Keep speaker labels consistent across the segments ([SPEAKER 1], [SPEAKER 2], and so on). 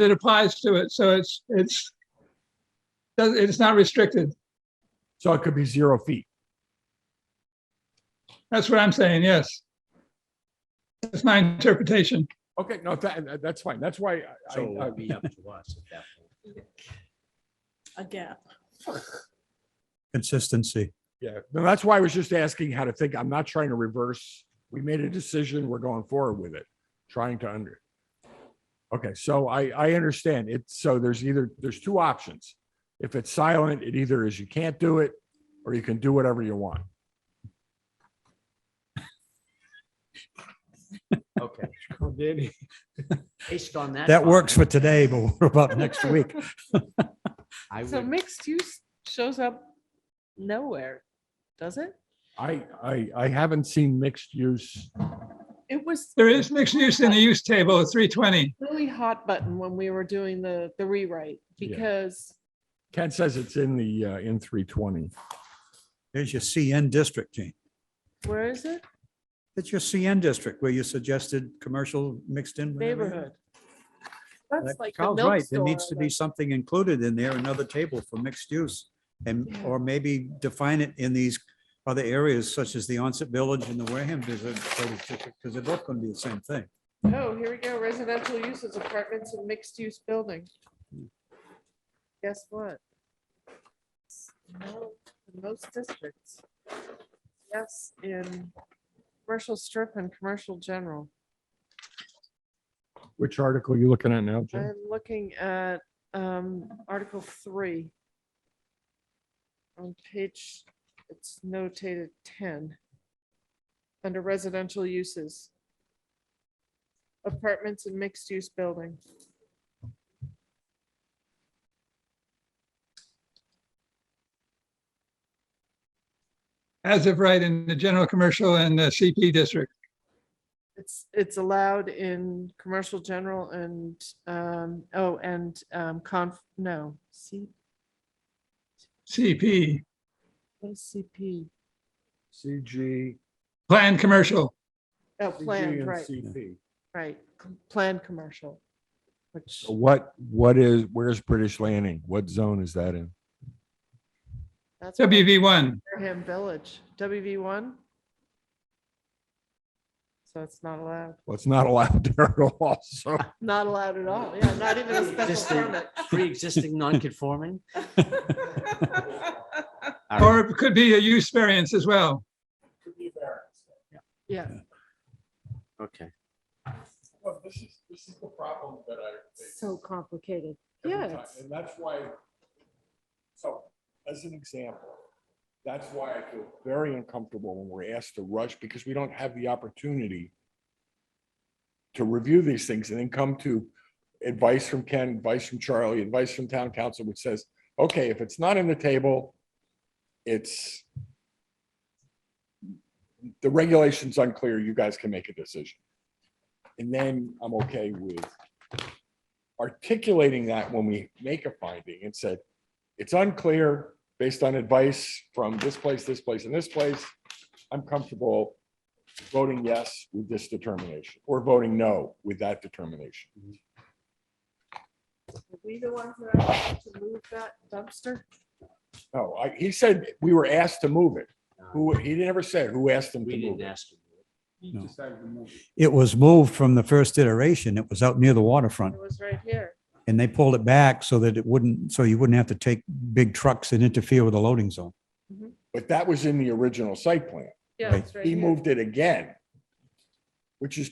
[SPEAKER 1] that applies to it. So it's, it's, does- it's not restricted.
[SPEAKER 2] So it could be zero feet.
[SPEAKER 1] That's what I'm saying, yes. That's my interpretation.
[SPEAKER 2] Okay, no, that, uh, that's fine. That's why I-
[SPEAKER 3] So it
[SPEAKER 2] I, I,
[SPEAKER 3] would be up to us at that point.
[SPEAKER 4] a gap.
[SPEAKER 5] Consistency.
[SPEAKER 2] yeah, no, that's why I was just asking how to think. I'm not trying to reverse. We made a decision. We're going forward with it, trying to under. Okay, so I, I understand it. So there's either, there's two options. If it's silent, it either is you can't do it or you can do whatever you want.
[SPEAKER 3] Okay. Based on that.
[SPEAKER 5] That works for
[SPEAKER 3] comment,
[SPEAKER 5] today, but what about next week?
[SPEAKER 3] I
[SPEAKER 6] So
[SPEAKER 3] would,
[SPEAKER 6] mixed use shows up nowhere, does it?
[SPEAKER 2] I, I, I haven't seen mixed use.
[SPEAKER 6] It was
[SPEAKER 1] There is mixed use in the use table at 320.
[SPEAKER 6] really hot button when we were doing the, the rewrite
[SPEAKER 2] Yeah.
[SPEAKER 6] because
[SPEAKER 2] Ken says it's in the, uh, in three twenty.
[SPEAKER 5] There's your CN district, Gene.
[SPEAKER 6] where is it?
[SPEAKER 5] It's your CN district where you suggested commercial mixed in. with everything.
[SPEAKER 6] Neighborhood. That's
[SPEAKER 5] That-
[SPEAKER 6] like the
[SPEAKER 5] Carl's
[SPEAKER 6] milk
[SPEAKER 5] right. There
[SPEAKER 6] store,
[SPEAKER 5] needs to be
[SPEAKER 6] like-
[SPEAKER 5] something included in there, another table for mixed use. And,
[SPEAKER 6] Yeah.
[SPEAKER 5] or maybe define it in these other areas such as the onset village and the Wareham visit, because they're both going to be the same thing.
[SPEAKER 6] Oh, here we go. Residential uses, apartments and mixed use building. Guess what? No, in most districts. Yes, in commercial strip and commercial general.
[SPEAKER 2] Which article are you looking at now, Jim?
[SPEAKER 6] I'm looking at um, Article 3. On page, it's notated 10. Under residential uses. Apartments and mixed-use building.
[SPEAKER 1] As of right in the general commercial and the CP district.
[SPEAKER 6] It's, it's allowed in commercial general and, um, oh, and um, conf, no, C,
[SPEAKER 1] CP,
[SPEAKER 6] what is CP?
[SPEAKER 2] CG.
[SPEAKER 1] planned commercial.
[SPEAKER 6] Oh,
[SPEAKER 2] CG
[SPEAKER 6] planned,
[SPEAKER 2] and
[SPEAKER 6] right,
[SPEAKER 2] CP.
[SPEAKER 6] right, c- planned commercial. Which,
[SPEAKER 2] What, what is, where's British Landing? What zone is that in?
[SPEAKER 6] that's. what I-
[SPEAKER 1] WV1,
[SPEAKER 6] Wareham Village, WV one. So it's not allowed,
[SPEAKER 2] Well, it's not allowed there at all, so.
[SPEAKER 6] not allowed at all, yeah, not even a
[SPEAKER 3] Just
[SPEAKER 6] special permit.
[SPEAKER 3] the- pre-existing non-conforming. All right.
[SPEAKER 1] or it could be a use variance as well.
[SPEAKER 6] Yeah,
[SPEAKER 3] Okay.
[SPEAKER 2] This is, this is the problem that I.
[SPEAKER 4] So complicated.
[SPEAKER 2] every time,
[SPEAKER 6] Yes.
[SPEAKER 2] And that's why, so as an example, that's why I feel very uncomfortable when we're asked to rush because we don't have the opportunity to review these things and then come to advice from Ken, advice from Charlie, advice from town council, which says, okay, if it's not in the table, it's the regulation's unclear, you guys can make a decision. And then I'm okay with articulating that when we make a finding and said, it's unclear based on advice from this place, this place, and this place. I'm comfortable voting yes with this determination or voting no with that determination.
[SPEAKER 6] Are we the ones that are allowed to move that dumpster?
[SPEAKER 2] No, I, he said we were asked to move it. Who, he never said who asked him to
[SPEAKER 3] Uh, We
[SPEAKER 2] move
[SPEAKER 3] didn't
[SPEAKER 2] it.
[SPEAKER 3] ask. him.
[SPEAKER 5] No.
[SPEAKER 3] decided to move.
[SPEAKER 5] It was moved from the first iteration. It was out near the waterfront.
[SPEAKER 6] It was right here,
[SPEAKER 5] And they pulled it back so that it wouldn't, so you wouldn't have to take big trucks and interfere with the loading zone.
[SPEAKER 2] But that was in the original site plan.
[SPEAKER 6] yeah,
[SPEAKER 5] Right.
[SPEAKER 6] it's right
[SPEAKER 2] He
[SPEAKER 6] here.
[SPEAKER 2] moved it again, which is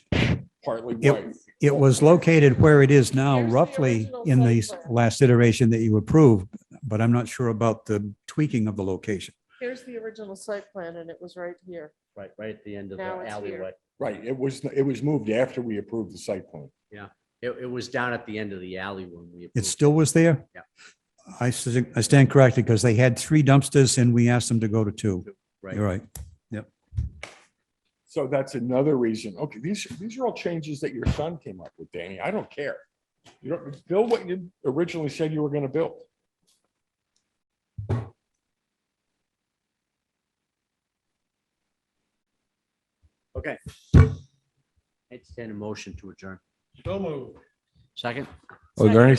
[SPEAKER 2] partly
[SPEAKER 5] It-
[SPEAKER 2] why.
[SPEAKER 5] It was located where it is now
[SPEAKER 6] Here's the
[SPEAKER 5] roughly
[SPEAKER 6] original
[SPEAKER 5] in the
[SPEAKER 6] site plan.
[SPEAKER 5] last iteration that you approved, but I'm not sure about the tweaking of the location.
[SPEAKER 6] Here's the original site plan and it was right here.
[SPEAKER 3] Right, right at the end of the
[SPEAKER 6] Now it's here.
[SPEAKER 3] alleyway.
[SPEAKER 2] Right, it was, it was moved after we approved the site plan.
[SPEAKER 3] It, it was down at the end of the alley when we.
[SPEAKER 5] It
[SPEAKER 3] approved
[SPEAKER 5] still was there?
[SPEAKER 3] Yeah.
[SPEAKER 5] I s- I stand corrected because they had three dumpsters and we asked them to go to two.
[SPEAKER 3] Right.
[SPEAKER 5] You're right.
[SPEAKER 2] So that's another reason. Okay, these, these are all changes that your son came up with, Danny. I don't care. You don't, build what you originally said you were gonna build.
[SPEAKER 3] Okay. Entertain a motion to adjourn.
[SPEAKER 7] Second?
[SPEAKER 4] Are there any